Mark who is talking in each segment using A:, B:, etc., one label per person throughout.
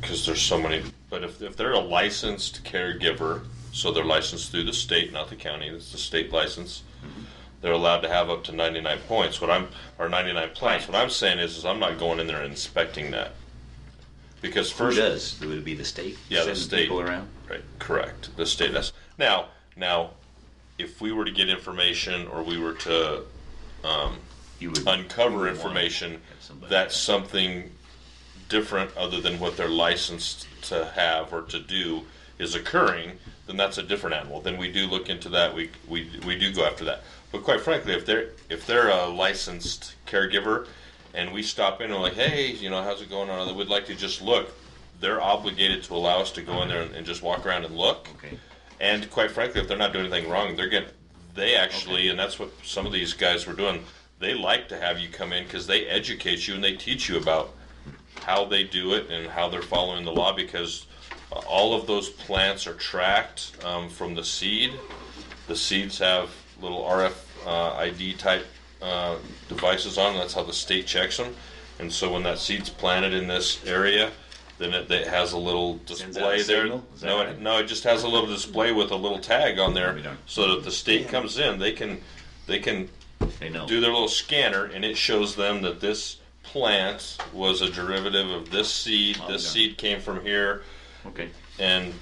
A: because there's so many. But if, if they're a licensed caregiver, so they're licensed through the state, not the county. It's the state license. They're allowed to have up to 99 points. What I'm or 99 plants. What I'm saying is, is I'm not going in there and inspecting that because
B: Who
A: first,
B: does? Would it be the state?
A: Yeah, the
B: Sending
A: state.
B: People around?
A: right? Correct. The state. That's now. Now, if we were to get information or we were to
B: You would.
A: uncover information
B: Have somebody-
A: that's something different other than what they're licensed to have or to do is occurring, then that's a different animal. Then we do look into that. We we we do go after that. But quite frankly, if they're if they're a licensed caregiver, and we stop in and like, hey, you know, how's it going on? We'd like to just look. They're obligated to allow us to go in there and, and just walk around and look.
B: Okay.
A: And quite frankly, if they're not doing anything wrong, they're getting, they actually, and that's what some of these guys were doing, they like to have you come in because they educate you and they teach you about how they do it and how they're following the law because uh, all of those plants are tracked um, from the seed. The seeds have little RF uh, ID type uh, devices on. 'em. That's how the state checks them. And so when that seed's planted in this area, then it, it has a little
B: Sends out a
A: display there.
B: signal? Is that
A: No,
B: right?
A: it, no, it just has a little display with a little tag on there,
B: We don't-
A: so that if the state comes in, they can, they can
B: They know.
A: do their little scanner, and it shows them that this plant was a derivative of this seed.
B: Oh,
A: This
B: yeah.
A: seed came from here,
B: Okay.
A: and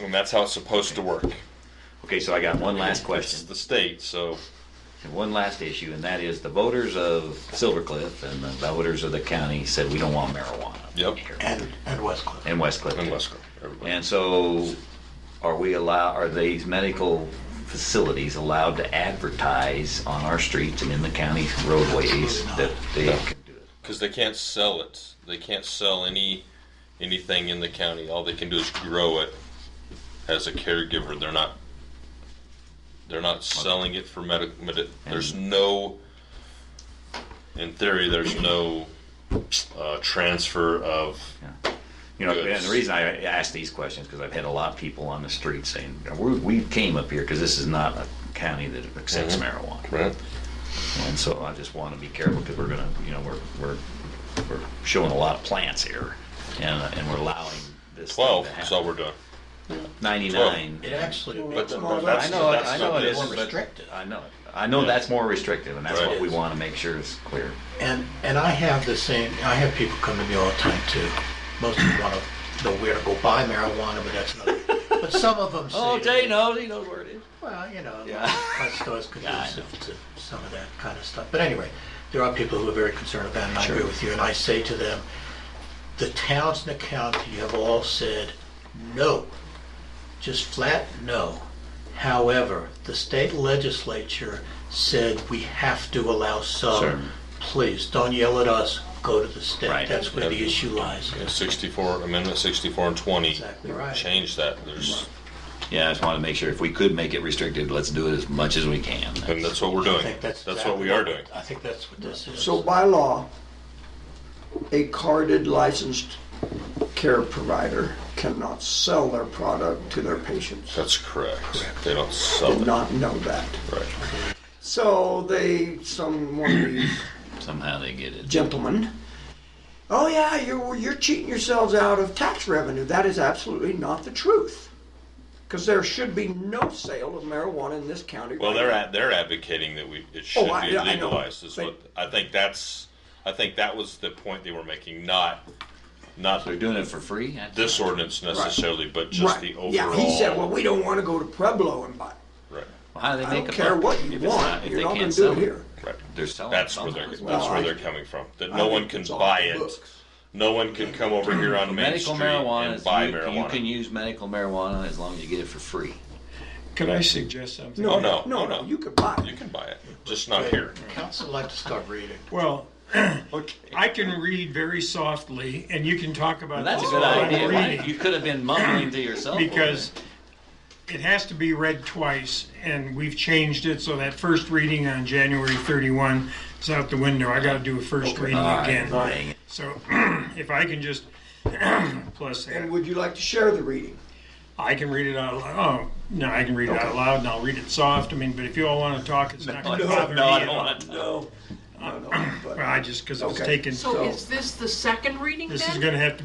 A: and that's how it's supposed to work.
B: Okay, so I got one last
A: It's
B: question,
A: the state, so
B: and one last issue, and that is the voters of Silver Cliff and the voters of the county said we don't want marijuana.
A: Yep.
B: here
C: And, and Westcliff.
B: In West Cliff.
A: and Wesco, everybody.
B: And so, are we allow, are these medical facilities allowed to advertise on our streets and in the county roadways that they can do it?
A: because they can't sell it. They can't sell any anything in the county. All they can do is grow it as a caregiver. They're not they're not selling it for medical. Medi- there's no in theory. There's no uh, transfer of
B: Yeah. You know, and the reason I ask these questions, because I've had a lot of people on the street saying, we, we came up here because this is not a county that accepts
A: Mm-hmm.
B: marijuana.
A: right.
B: And so I just want to be careful because we're gonna, you know, we're, we're, we're showing a lot of plants here and, and we're allowing this. thing to
A: Twelve is all
B: happen.
A: we're doing.
B: Ninety-nine.
C: It actually,
A: But
C: it's
A: th-
C: more,
A: that's-
B: I know,
A: that's
B: I know
A: not
B: it
A: this.
B: is,
C: more
B: but
C: restricted.
B: I know, I know that's more restrictive, and that's
A: Right.
B: what we want to make sure is clear.
C: And, and I have the same, I have people come to me all the time too. Most of them want to know where to go buy marijuana, but that's another, but some of them say. to me,
B: Oh, knows, he knows where it is.
C: Well, you know,
B: Yeah.
C: my stores could do
B: Yeah, I
C: some, to some of that kind of stuff. But anyway, there are people who are very concerned about it, and I agree with you. And I say to them, the towns and the county have all said no, just flat no. However, the state legislature said we have to allow some.
B: Sure.
C: Please don't yell at us. Go to the state.
B: Right.
C: That's where the issue lies.
A: Sixty-four amendment, sixty-four and twenty.
C: Exactly right.
A: Change that. There's
B: Yeah, I just want to make sure if we could make it restricted, let's do it as much as we can.
A: and that's what we're
C: I
A: doing.
C: think that's,
A: That's, what
C: exactly
A: we are doing.
C: I think that's what this is.
D: So by law, a carded licensed care provider cannot sell their product to their patients.
A: That's correct. They don't sell
D: Did
A: it.
D: not know that.
A: Right.
D: So they, some one of these
B: Somehow they get it.
D: gentlemen, oh yeah, you're, you're cheating yourselves out of tax revenue. That is absolutely not the truth. Because there should be no sale of marijuana in this county.
A: Well,
D: right
A: they're
D: now.
A: ad- they're advocating that we it should
D: Oh, I-
A: be
D: yeah, I know.
A: legalized. Is
D: They-
A: what I think that's I think that was the point they were making. Not not
B: They're doing it for free? That's-
A: this ordinance necessarily, but just
D: right.
A: the overall.
D: Yeah, he said, well, we don't want to go to Pueblo and buy.
A: right,
B: Well, How do they
D: I
B: make
D: don't
B: a
D: care
B: buck
D: what
B: if
D: you
B: it's
D: want.
B: if
D: You're
B: they
D: not going
B: can't
D: to do
B: sell
D: it here.
A: right.
B: They're selling
A: That's where
B: something.
A: they're that's
D: Well,
A: where
D: I-
A: they're coming from. That
D: I
A: no
D: think
A: one can
D: it's off
A: buy
D: the
A: it.
D: books.
A: No one can come over here on Main
B: Medical
A: Street
B: marijuana,
A: and
B: is-
A: buy
B: you,
A: marijuana.
B: you can use medical marijuana as long as you get it for free.
E: Could I suggest something?
A: No, Oh, no.
D: No, no, you could buy
A: You
D: it.
A: can buy it, just not
C: But
A: here.
C: Council like to start reading.
E: Well, I can read very softly, and you can talk about
B: That's a
E: this
B: good
E: while I'm
B: idea.
E: reading,
B: You could have been mumbling to yourself.
E: because it has to be read twice, and we've changed it so that first reading on January 31 is out the window. I got to do a first reading
B: All right,
E: again.
B: dang it.
E: So if I can just plus that.
D: And would you like to share the reading?
E: I can read it out loud. Oh, no, I can read it out loud and I'll read it soft. I mean, but if you all want to talk, it's not going to bother
B: no,
E: me.
B: I
E: at
B: don't
E: all.
B: want to.
D: No. No, no,
E: Well,
D: but-
E: I just, because it was
D: Okay.
E: taken,
F: So is this the second reading then?
E: this is going to have to be.